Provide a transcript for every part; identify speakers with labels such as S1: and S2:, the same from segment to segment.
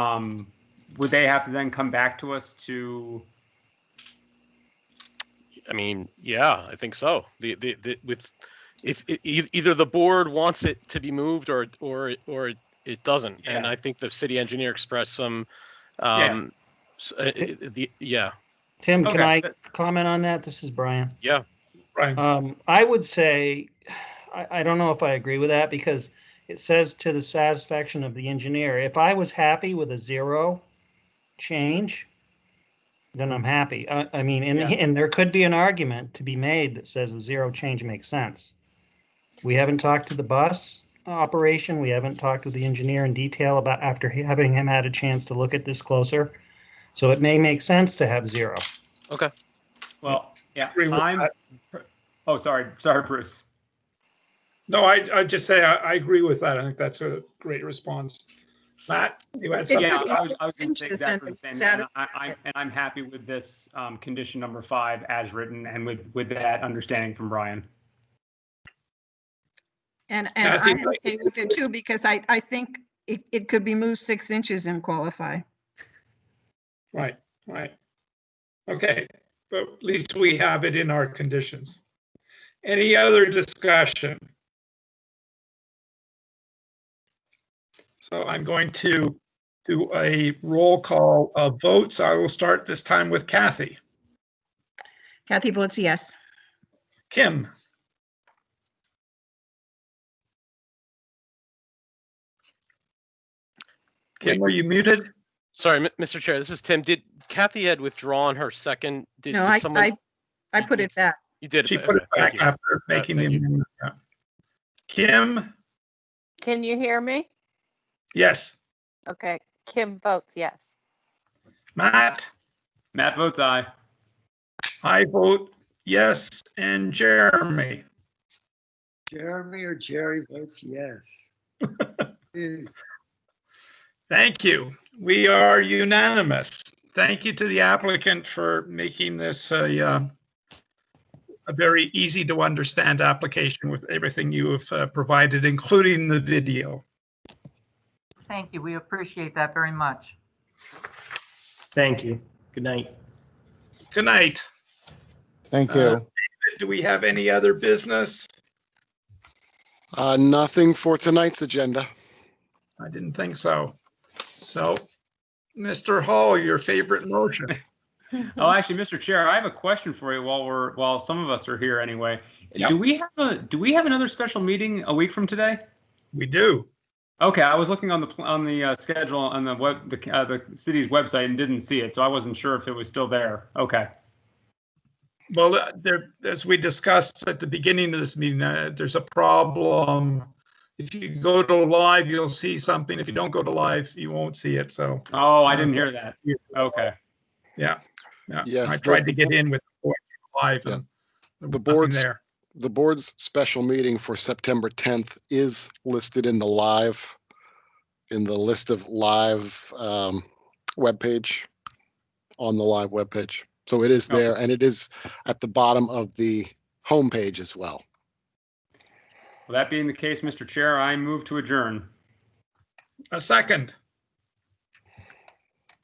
S1: Um, would they have to then come back to us to,
S2: I mean, yeah, I think so. The, the, the with, if, e- e either the board wants it to be moved or, or, or it- it doesn't. And
S1: Yeah.
S2: I think the city engineer expressed some,
S1: Yeah.
S2: um, s- uh, uh, the- yeah,
S3: Tim, can
S1: Okay.
S3: I comment on that? This is Brian.
S2: Yeah.
S1: Brian.
S3: Um, I would say, I, I don't know if I agree with that because it says to the satisfaction of the engineer. If I was happy with a zero change, then I'm happy. I, I mean, and,
S2: Yeah.
S3: and there could be an argument to be made that says the zero change makes sense. We haven't talked to the bus operation. We haven't talked with the engineer in detail about after having him had a chance to look at this closer. So it may make sense to have zero.
S1: well, yeah,
S4: Agree with
S1: I'm,
S4: that.
S1: oh, sorry, sorry, Bruce.
S4: No, I, I'd just say I, I agree with that. I think that's a great response. Matt, you had
S5: It could
S4: something?
S1: Yeah,
S5: be
S1: I was, I was gonna say
S5: six
S1: exactly the
S5: to
S1: same, and I,
S5: satisfy
S1: I,
S5: it.
S1: and I'm happy with this, um, condition number five as written and with, with that understanding from Brian.
S5: And,
S4: I
S5: and
S4: think
S5: I'm
S4: like-
S5: okay with it too, because I, I think it, it could be moved six inches and qualify.
S4: Right, right. Okay, but at least we have it in our conditions. Any other discussion? So I'm going to do a roll call of votes. I will start this time with Kathy.
S5: Kathy votes yes.
S4: Kim, Kim, are you muted?
S2: sorry, M- Mr. Chair, this is Tim. Did Kathy had withdrawn her second? Did
S5: No,
S2: did
S5: I,
S2: someone-
S5: I, I put it back.
S2: You did.
S4: She
S2: but-
S4: put it
S2: okay, thank
S4: back
S2: you. Uh,
S4: after making the
S2: thank you.
S4: amendment. yeah. Kim,
S6: Can you hear me?
S4: yes.
S6: Okay, Kim votes yes.
S4: Matt,
S1: Matt votes aye.
S4: I vote yes. And Jeremy,
S7: Jeremy or Jerry votes yes. Is-
S4: thank you. We are unanimous. Thank you to the applicant for making this a, uh, a very easy to understand application with everything you have uh, provided, including the video.
S8: Thank you. We appreciate that very much.
S9: Thank you. Good night.
S4: Tonight,
S10: Thank
S4: Uh,
S10: you.
S4: do we have any other business?
S10: Uh, nothing for tonight's agenda.
S4: I didn't think so. So, Mr. Hall, your favorite motion.
S5: Hmm.
S1: Oh, actually, Mr. Chair, I have a question for you while we're, while some of us are here anyway.
S4: Yep.
S1: Do we have a, do we have another special meeting a week from today?
S4: We do.
S1: Okay, I was looking on the, pl- on the uh, schedule on the web, the, uh, the city's website and didn't see it, so I wasn't sure if it was still there. Okay.
S4: Well, uh, there, as we discussed at the beginning of this meeting, uh, there's a problem. If you go to live, you'll see something. If you don't go to live, you won't see it. So,
S1: Oh, I didn't hear that. Okay.
S4: yeah. yeah.
S10: Yes,
S4: I
S10: the-
S4: tried to get in with the board live
S10: Yeah.
S4: and there was
S10: The
S4: nothing
S10: board's-
S4: there.
S10: The board's special meeting for September 10th is listed in the live, in the list of live um, webpage, on the live webpage. So it is
S1: Okay.
S10: there and it is at the bottom of the homepage as well.
S1: Well, that being the case, Mr. Chair, I move to adjourn.
S4: A second.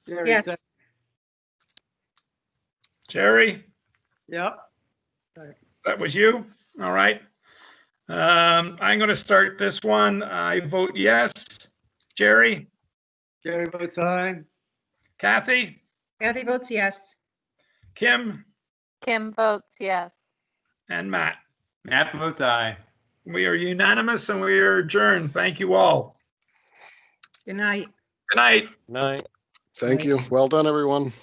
S7: Jerry
S5: Yes.
S7: said-
S4: Jerry,
S7: Yep.
S4: that was you. All right. Um, I'm going to start this one. I vote yes. Jerry,
S7: Jerry votes aye.
S4: Kathy,
S5: Kathy votes yes.
S4: Kim,
S6: Kim votes yes.
S4: and Matt.
S1: Matt votes aye.
S4: We are unanimous and we are adjourned. Thank you all.
S5: Good night.
S4: Good night.
S2: Night.
S10: Thank you. Well done, everyone.